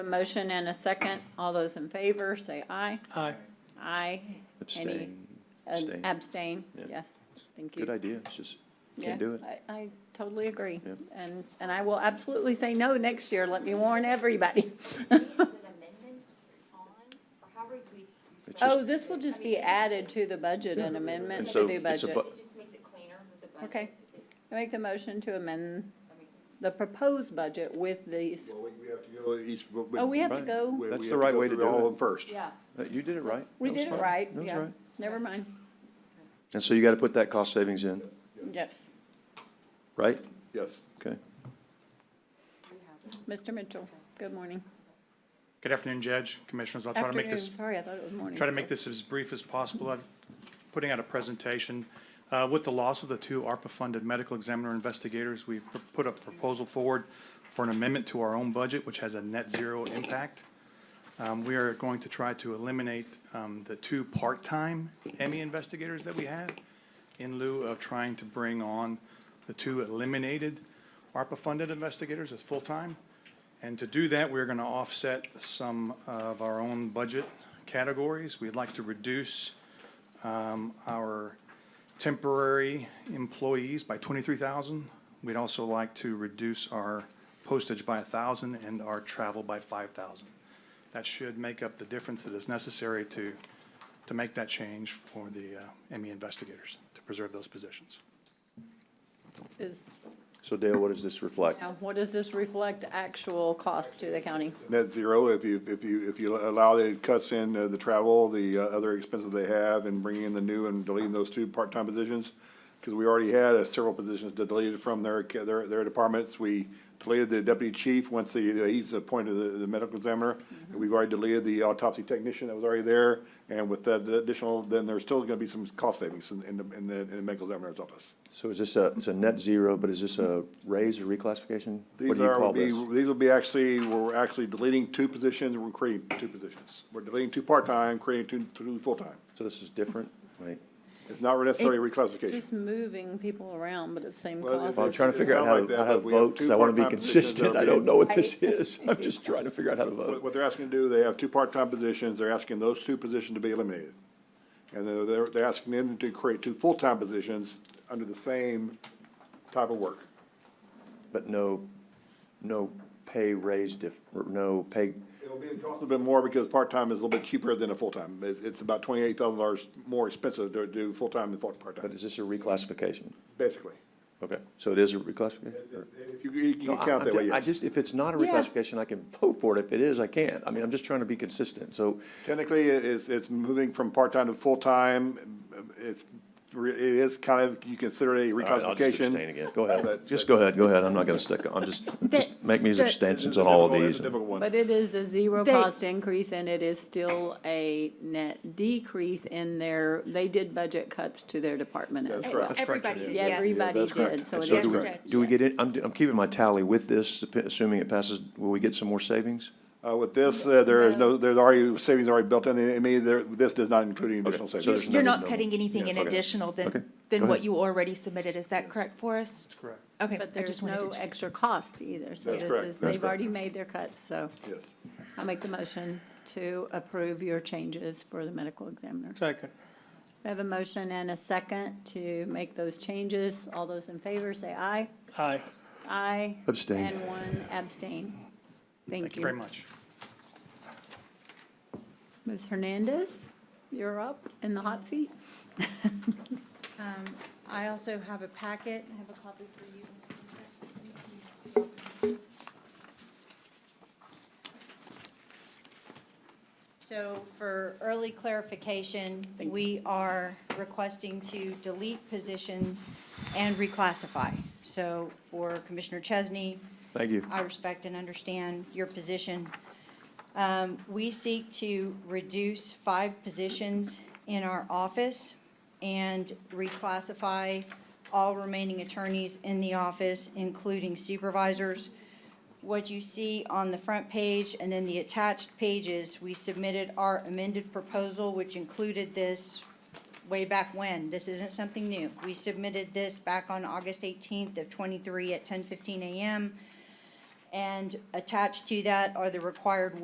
A motion and a second. All those in favor, say aye. Aye. Aye. Any Abstain. and Abstain. Abstain, Yeah. yes. Thank you. Good idea, it's just, Yeah, can't do it. I, I totally agree. Yeah. And, and I will absolutely say no next year. Let me warn everybody. Is an amendment on, or how would we? It's Oh, just- this will just be added to the budget and amendment And to so the it's a budget. bu- It just makes it cleaner with the budget. Okay. because it's- I Make the motion to amend I mean, the proposed budget with these, Well, we, we have to go each. but oh, we have to Right. go, we- That's we the have right go way to through do All it. of them first. Yeah, Uh, You did it right. We That was did it fine. right, That was yeah. right. never mind. And so you got to put that cost savings in, Yes, right? Yes. Okay. we have it. Mr. Mitchell, good morning. Good afternoon, Judge, Commissioners. I'll try to make Afternoon, this, sorry, I thought it was morning. try to make this as brief as possible. I'm putting out a presentation. Uh, With the loss of the two ARPA-funded medical examiner investigators, we've p- put a proposal forward for an amendment to our own budget, which has a net zero impact. Um, We are going to try to eliminate um, the two part-time ME investigators that we have in lieu of trying to bring on the two eliminated ARPA-funded investigators as full-time. And to do that, we're going to offset some of our own budget categories. We'd like to reduce um, our temporary employees by 23,000. We'd also like to reduce our postage by 1,000 and our travel by 5,000. That should make up the difference that is necessary to, to make that change for the uh, ME investigators, to preserve those positions. Is, So Dale, what does this reflect? now, what does this reflect actual cost to the county? Net zero, if you, if you, if you allow that it cuts in uh, the travel, the uh, other expenses they have and bringing in the new and deleting those two part-time positions. Because we already had uh, several positions deleted from their, ca- their, their departments. We deleted the deputy chief once the, he's appointed the, the medical examiner. Mm-hmm. And We've already deleted the autopsy technician that was already there. And with that additional, then there's still gonna be some cost savings in, in the, in the, in the medical examiner's office. So is this a, it's a net zero, but is this a raise or reclassification? What These do you are, call will be, this? these will be actually, we're actually deleting two positions, we're creating two positions. We're deleting two part-time, creating two, two full-time. So this is different? Wait, It's not necessarily It's reclassification. just moving people around, but it's same Well, cost. Well, I'm It's- trying to it figure out sounds how like to, that, how to but we have vote two because I want to be part-time positions consistent. I that'll don't be- know what this is. I'm just trying to figure out how to What, vote. what they're asking to do, they have two part-time positions, they're asking those two positions to be eliminated. And they're- they're, they're asking them to create two full-time positions under the same type of work. But no, no pay raise diff, or no pay, It'll be, cost a little bit more because part-time is a little bit cheaper than a full-time. It's, it's about twenty-eight thousand dollars more expensive to do full-time than full- but part-time, is this a reclassification? basically. Okay, so it is a reclassification? or- If you, you No, can I- count I'm that way, ju- I yes. just, if it's not a Yeah. reclassification, I can vote for it. If it is, I can't. I mean, I'm just trying to be consistent. So Technically, it is, it's moving from part-time to full-time. It's, re- it is kind of, you consider it a reclassification. again. Go ahead. But- Just go ahead, go ahead. I'm not gonna stick, I'm just, just make me as the- abstentions on all of Difficult- it's these. a difficult one. But it is a zero They- cost increase and it is still a net decrease in their, they did budget cuts to their department as That's well. right. Everybody Yeah, did, yes. Everybody That's correct. did, so And it so do is, we- Yes. Do we get it, I'm, I'm keeping my tally with this, assuming it passes, will we get some more savings? Uh, with this, uh, there is no, there's already, savings already built in. I mean, there, this does not include any additional so savings. there's You're no- not no- cutting anything in Okay. additional Okay. than, Go than ahead. what you already submitted, is that correct, Forrest? Correct. Okay, but I there's just wanted to. no check. extra cost either, so That's this correct. is, That's they've correct. already made their cuts, so Yes. I make the motion to approve your changes for the medical examiner. Second. We have a motion and a second to make those changes. All those in favor, say aye. Aye. Aye. Abstain. And one abstain. Thank you very much. Ms. Hernandez, you're up in the hot seat. Um, I also have a packet, I have a copy for you. So for early clarification, Thank we are requesting to delete positions and reclassify. So for Commissioner Chesney, Thank you. I respect and understand your position. Um, We seek to reduce five positions in our office and reclassify all remaining attorneys in the office, including supervisors. What you see on the front page and then the attached pages, we submitted our amended proposal, which included this way back when. This isn't something new. We submitted this back on August 18th of '23 at 10:15 a.m. And attached to that are the required